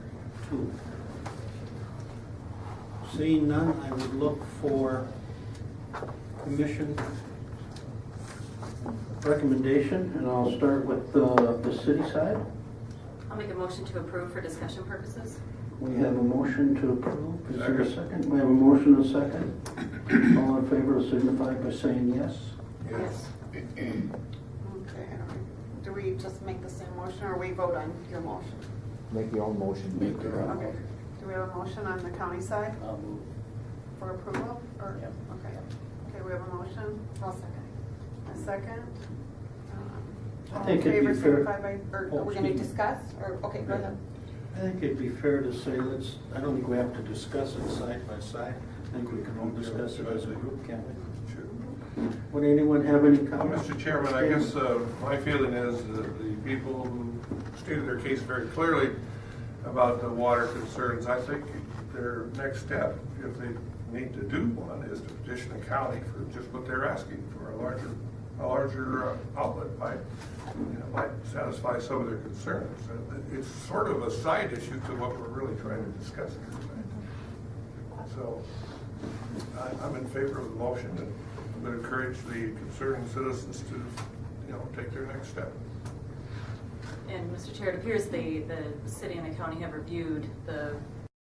approved. Seeing none, I would look for commission recommendation, and I'll start with uh, the city side. I'll make a motion to approve for discussion purposes. We have a motion to approve. Is there a second? We have a motion and a second. All in favor signify by saying yes. Yes. Okay, all right. do we just make the same motion, or we vote on your motion? Make your own motion. Make your own. Okay, do we have a motion on the county side I'll move. for approval, or? Yep. Okay, okay, we have a motion? I'll second. A second? Um, I all think in it'd be favor, fair- signify by- Or Oh, are we gonna excuse me. discuss, or, okay, go ahead. I think it'd be fair to say, let's, I don't think we have to discuss it side by side. I think we can all discuss it as a group, can we? Sure. Would anyone have any Well, comments? Mr. Chairman, I guess uh, my feeling is that the people who stated their case very clearly about the water concerns, I think their next step, if they need to do one, is to petition the county for just what they're asking for, a larger, a larger uh, outlet might, you know, might satisfy some of their concerns. And It's sort of a side issue to what we're really trying to discuss here tonight. So I- I'm in favor of the motion and would encourage the concerned citizens to, you know, take their next step. And Mr. Chair, it appears the, the city and the county have reviewed the